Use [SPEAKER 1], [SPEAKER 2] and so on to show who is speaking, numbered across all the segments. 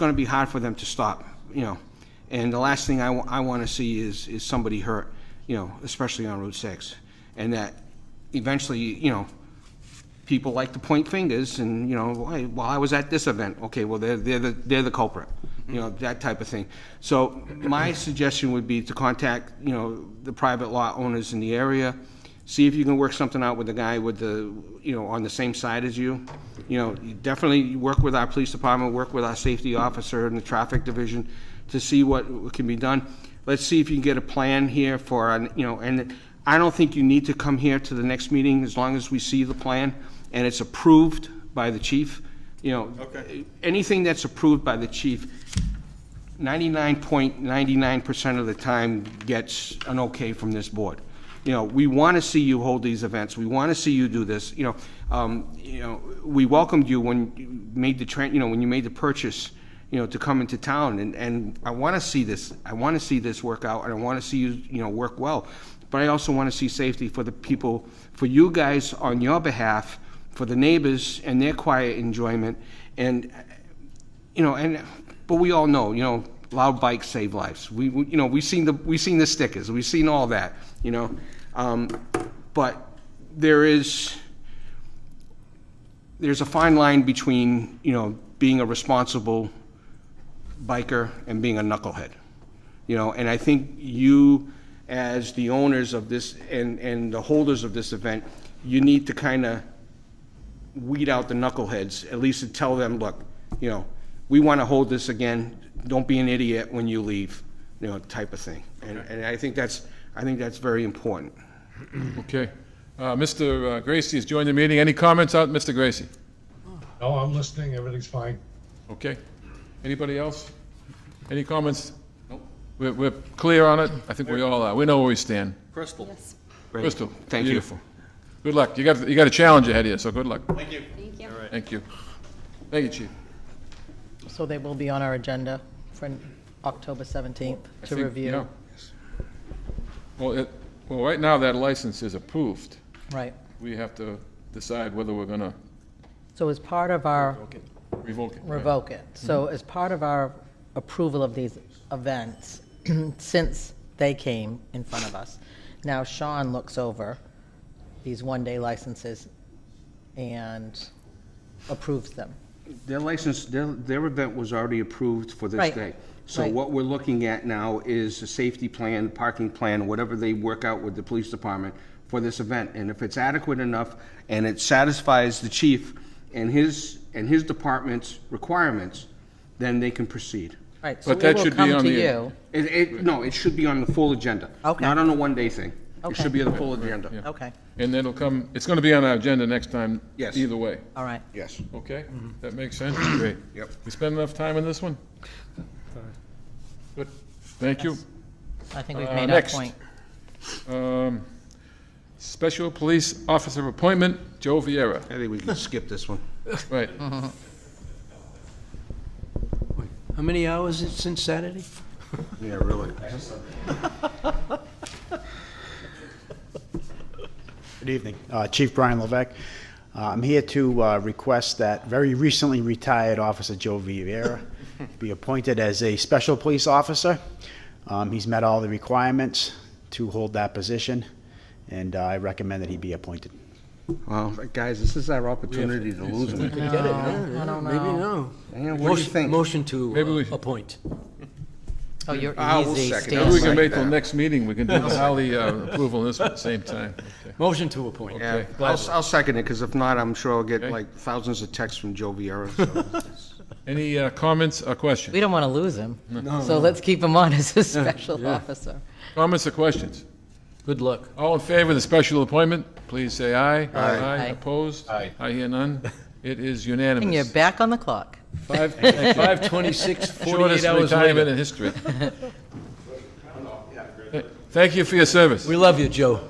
[SPEAKER 1] going to be hard for them to stop, you know. And the last thing I, want to see is, is somebody hurt, you know, especially on Route 6. And that eventually, you know, people like to point fingers and, you know, "Why- well, I was at this event, okay, well, they're, they're the, they're the culprit, you know, that type of thing. So my suggestion would be to contact, you know, the private lot owners in the area, see if you can work something out with the guy with the, you know, on the same side as you. You know, you definitely work with our police department, work with our safety officer and the traffic division to see what can be done. Let's see if you can get a plan here for, an- you know, and I don't think you need to come here to the next meeting as long as we see the plan and it's approved by the chief, you know.
[SPEAKER 2] Okay.
[SPEAKER 1] Anything that's approved by the chief, ninety-nine point ninety-nine percent of the time gets an okay from this board. You know, we want to see you hold these events, we want to see you do this, you know, um, you know, we welcomed you when you made the tran, you know, when you made the purchase, you know, to come into town, and, and I want to see this, I want to see this work out, and I want to see you, you know, work well. But I also want to see safety for the people, for you guys on your behalf, for the neighbors and their quiet enjoyment, and you know, and, but we all know, you know, loud bikes save lives. We, we- you know, we've seen the, we've seen the stickers, we've seen all that, you know? Um, But there is, there's a fine line between, you know, being a responsible biker and being a knucklehead. You know, and I think you, as the owners of this and, and the holders of this event, you need to kind of weed out the knuckleheads, at least to tell them, look, you know, we want to hold this again, don't be an idiot when you leave, you know, type of thing. And, and I think that's, I think that's very important.
[SPEAKER 3] Okay. Uh, Mr. Gracie has joined the meeting. Any comments out, Mr. Gracie?
[SPEAKER 4] No, I'm listening, everything's fine.
[SPEAKER 3] Okay. Anybody else? Any comments? We're, we're clear on it? I think we all are. We know where we stand.
[SPEAKER 2] Crystal.
[SPEAKER 1] Great.
[SPEAKER 3] Crystal?
[SPEAKER 1] Thank you.
[SPEAKER 3] Beautiful. Good luck. You got, you got a challenge ahead of you, so good luck.
[SPEAKER 2] Thank you.
[SPEAKER 5] Thank you.
[SPEAKER 3] Thank you. Thank you, Chief.
[SPEAKER 6] So they will be on our agenda for October 17th
[SPEAKER 3] I
[SPEAKER 6] to
[SPEAKER 3] think-
[SPEAKER 6] review.
[SPEAKER 3] yeah. Well, it, well, right now, that license is approved.
[SPEAKER 6] Right.
[SPEAKER 3] We have to decide whether we're gonna
[SPEAKER 6] So as part of our,
[SPEAKER 3] revoke it. right? Mm-hmm.
[SPEAKER 6] revoke it. So as part of our approval of these events, since they came in front of us, now Sean looks over these one-day licenses and approves them.
[SPEAKER 1] Their license, their, their event was already approved for this
[SPEAKER 6] Right.
[SPEAKER 1] day. So
[SPEAKER 6] Right.
[SPEAKER 1] what we're looking at now is a safety plan, parking plan, whatever they work out with the police department for this event. And if it's adequate enough and it satisfies the chief and his, and his department's requirements, then they can proceed.
[SPEAKER 6] Right, so
[SPEAKER 3] But
[SPEAKER 6] we
[SPEAKER 3] that
[SPEAKER 6] will
[SPEAKER 3] should be
[SPEAKER 6] come
[SPEAKER 3] on
[SPEAKER 6] to
[SPEAKER 3] the-
[SPEAKER 6] you.
[SPEAKER 1] It, it, no, it should be on the full agenda.
[SPEAKER 6] Okay.
[SPEAKER 1] Not on a one-day thing. It
[SPEAKER 6] Okay.
[SPEAKER 1] should be on the full agenda.
[SPEAKER 6] Okay,
[SPEAKER 3] And it'll come, it's gonna be on our agenda next time.
[SPEAKER 1] Yes.
[SPEAKER 3] Either way,
[SPEAKER 6] all right.
[SPEAKER 1] Yes.
[SPEAKER 3] okay? That makes sense? Great.
[SPEAKER 1] Yep.
[SPEAKER 3] We spend enough time on this one? Good. Thank you.
[SPEAKER 6] I think we've
[SPEAKER 3] Uh,
[SPEAKER 6] made our
[SPEAKER 3] next.
[SPEAKER 6] point.
[SPEAKER 3] Um, Special Police Officer Appointment, Joe Vieira.
[SPEAKER 1] I think we can skip this one.
[SPEAKER 3] Right.
[SPEAKER 7] How many hours is it since Saturday?
[SPEAKER 1] Yeah, really.
[SPEAKER 8] Good evening. Uh, Chief Brian Levesque. Uh, I'm here to uh, request that very recently retired Officer Joe Viera be appointed as a special police officer. Um, He's met all the requirements to hold that position, and uh, I recommend that he be appointed.
[SPEAKER 1] Well, guys, this is our opportunity to lose them.
[SPEAKER 7] Get it,
[SPEAKER 6] I
[SPEAKER 7] huh?
[SPEAKER 6] don't
[SPEAKER 7] Maybe
[SPEAKER 6] know.
[SPEAKER 7] no.
[SPEAKER 1] Yeah, what do you
[SPEAKER 7] Motion-
[SPEAKER 1] think?
[SPEAKER 7] Motion
[SPEAKER 3] Maybe we
[SPEAKER 7] to
[SPEAKER 3] should-
[SPEAKER 7] uh, appoint.
[SPEAKER 6] Oh, you're
[SPEAKER 1] I will
[SPEAKER 6] easy,
[SPEAKER 1] second
[SPEAKER 3] Maybe we
[SPEAKER 6] Stacey.
[SPEAKER 3] can wait till next meeting, we can do the Holly uh, approval on this one at the same time. Okay.
[SPEAKER 7] Motion to appoint.
[SPEAKER 1] Yeah,
[SPEAKER 3] Okay.
[SPEAKER 1] I'll, I'll second it, because if not, I'm sure I'll get
[SPEAKER 3] Okay.
[SPEAKER 1] like thousands of texts from Joe Vieira. so.
[SPEAKER 3] Any uh, comments or questions?
[SPEAKER 6] We don't want to lose him. So let's keep him on as a special officer.
[SPEAKER 3] Comments or questions?
[SPEAKER 7] Good luck.
[SPEAKER 3] All in favor of the special appointment, please say aye. Aye.
[SPEAKER 6] Aye.
[SPEAKER 3] Opposed? Aye. I hear none. It is unanimous.
[SPEAKER 6] And you're back on the clock.
[SPEAKER 3] Five, thank you.
[SPEAKER 7] 5:26, 48
[SPEAKER 3] Shortest
[SPEAKER 7] hours
[SPEAKER 3] retirement
[SPEAKER 7] later.
[SPEAKER 3] in history. Th- Thank you for your service.
[SPEAKER 7] We love you, Joe.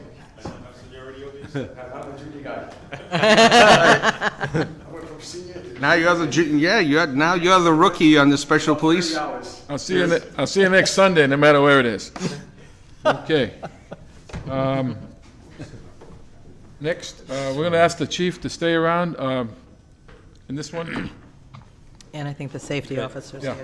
[SPEAKER 1] Now you're the, ju- yeah, you're, now you're the rookie on the special police.
[SPEAKER 3] I'll see you, ne- I'll see you next Sunday, no matter where it is. Okay. Um, Next, uh, we're going to ask the chief to stay around um, in this one.
[SPEAKER 6] And I think the safety officers.
[SPEAKER 3] Yeah.